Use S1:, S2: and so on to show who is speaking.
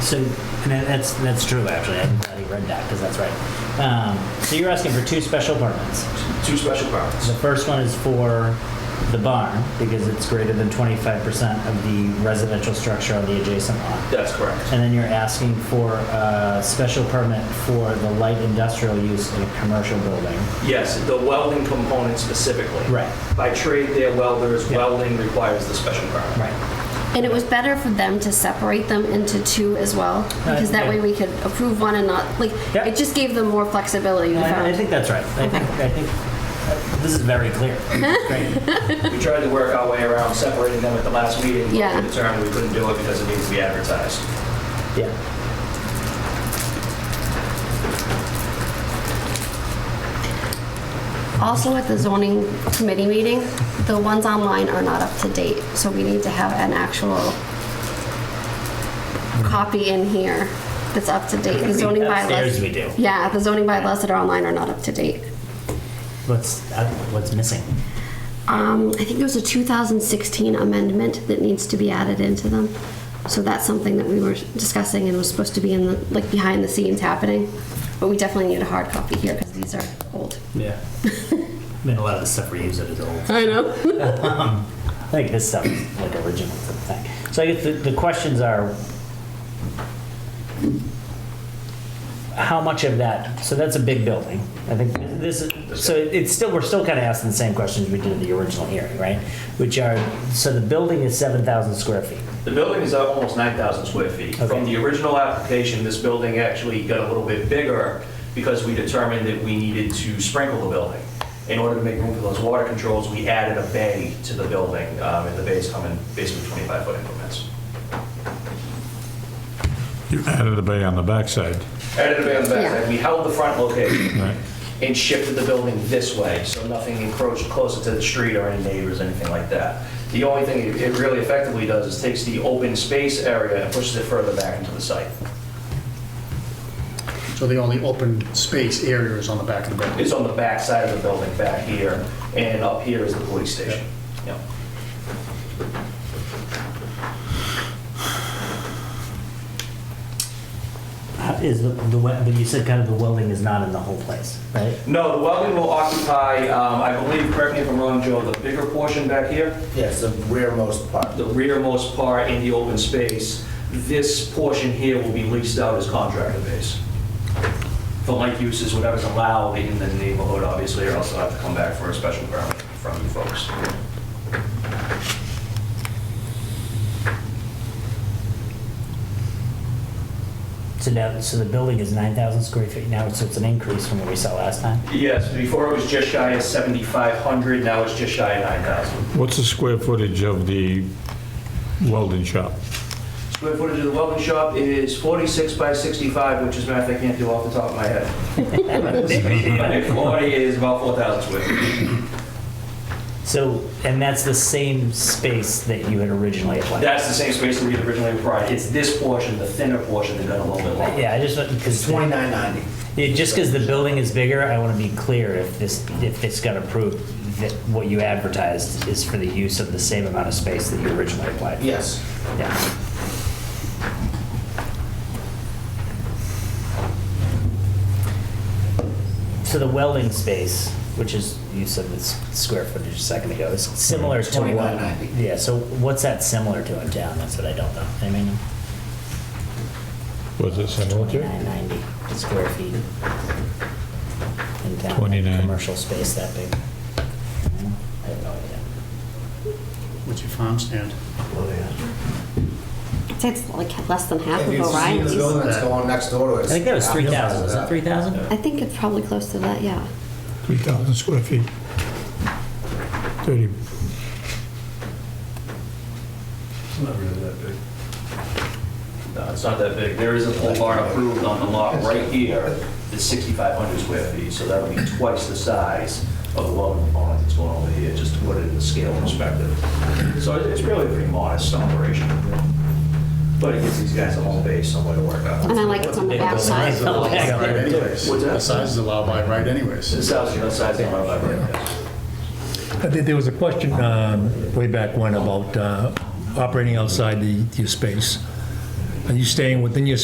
S1: so, and that- that's, that's true, actually. I'm glad you read that, because that's right. Um, So you're asking for two special permits.
S2: Two special
S1: The
S2: permits.
S1: first one is for the barn, because it's greater than 25% of the residential structure on the adjacent lot.
S2: That's correct.
S1: And then you're asking for a special permit for the light industrial use in a commercial building.
S2: Yes, the welding component specifically.
S1: Right.
S2: By trade, they're welders.
S1: Yeah.
S2: Welding requires the special permit.
S1: Right.
S3: And it was better for them to separate them into two as well, because that way we could approve one and not, like,
S1: Yeah.
S3: it just gave them more flexibility. I
S1: I I
S3: found.
S1: think that's right. I think, I think, uh, this is very clear. Great.
S2: We tried to work our way around separating them at the last meeting. but
S3: Yeah.
S2: We determined we couldn't do it because it needs to be advertised.
S1: Yeah.
S3: Also, at the zoning committee meeting, the ones online are not up to date, so we need to have an actual copy in here that's up to date. The zoning
S1: Upstairs
S3: bylaws.
S1: we do.
S3: Yeah, the zoning bylaws that are online are not up to date.
S1: What's, uh, what's missing?
S3: Um, I think there's a 2016 amendment that needs to be added into them. So that's something that we were discussing and was supposed to be in the, like, behind the scenes happening. But we definitely need a hard copy here because these are old.
S1: Yeah. I mean, a lot of the stuff we use it is old. Um,
S3: I know.
S1: I think this stuff is like original to the thing. So I guess the, the questions are how much of that, so that's a big building. I think this is, so it's still, we're still kind of asking the same questions we did in the original hearing, right? Which are, so the building is 7,000 square feet.
S2: The building is up almost 9,000 square feet.
S1: Okay.
S2: From the original application, this building actually got a little bit bigger because we determined that we needed to sprinkle the building. In order to make room for those water controls, we added a bay to the building, um, and the bays come in basically 25-foot increments.
S4: You added a bay on the backside,
S2: Added a bay on the
S3: Yeah.
S2: backside, we held the front location
S4: right?
S2: and shifted the building this way, so nothing encroached closer to the street or any neighbors, anything like that. The only thing it- it really effectively does is takes the open space area and pushes it further back into the site.
S5: So the only open space area is on the back of the building.
S2: It's on the back side of the building, back here, and up here is the police station. Yeah.
S1: How- Is the, the, we- but you said kind of the welding is not in the whole place, right?
S2: No, the welding will occupy, um, I believe, correct me if I'm wrong, Joe, the bigger portion back here,
S6: Yes, the rearmost part.
S2: the rearmost part in the open space. This portion here will be leased out as contractor base for light uses, whatever's allowed in the neighborhood, obviously, or else I'll have to come back for a special permit from you folks.
S1: So now, so the building is 9,000 square feet now, so it's an increase from what we saw last time?
S2: Yes, before it was just shy of 7,500, now it's just shy of 9,000.
S4: What's the square footage of the welding shop?
S2: Square footage of the welding shop is 46 by 65, which is math I can't do off the top of my head. But 40 is about 4,000 square feet.
S1: So, and that's the same space that you had originally applied?
S2: That's the same space that we had originally provided. It's this portion, the thinner portion, that got a little bit longer.
S1: Yeah, I just, because,
S6: 2990.
S1: just because the building is bigger, I want to be clear if this, if this got approved, that what you advertised is for the use of the same amount of space that you originally applied?
S6: Yes.
S1: Yeah. So the welding space, which is, you said it's square footage a second ago, is similar to what?
S6: 2190.
S1: Yeah, so what's that similar to in town? That's what I don't know. I mean,
S4: Was it similar to?
S1: 990 square feet in town.
S4: 29.
S1: Commercial space that big. I have no idea.
S5: What's your farm stand?
S3: I'd say it's like less than half
S6: If
S3: of
S6: you've seen the building
S3: O'Reilly's.
S6: that's going next door to it.
S1: I think that was 3,000. Was it 3,000?
S3: I think it's probably close to that, yeah.
S4: 3,000 square feet. 30,
S2: No, Uh, it's not that big. There is a pole barn approved on the lot right here, that's 6,500 square feet, so that'll be twice the size of the welding barn that's going over here, just to put it in the scale perspective. So it- it's really a pretty modest operation. But it gives these guys a home base, somewhere to work out.
S3: And I like it's on the back side.
S5: Right anyways.
S2: What's that?
S5: The size is allowed by right anyways.
S2: This house, you know, size of my library.
S7: Uh, There there was a question um, way back when about uh, operating outside the, your space. Are you staying within your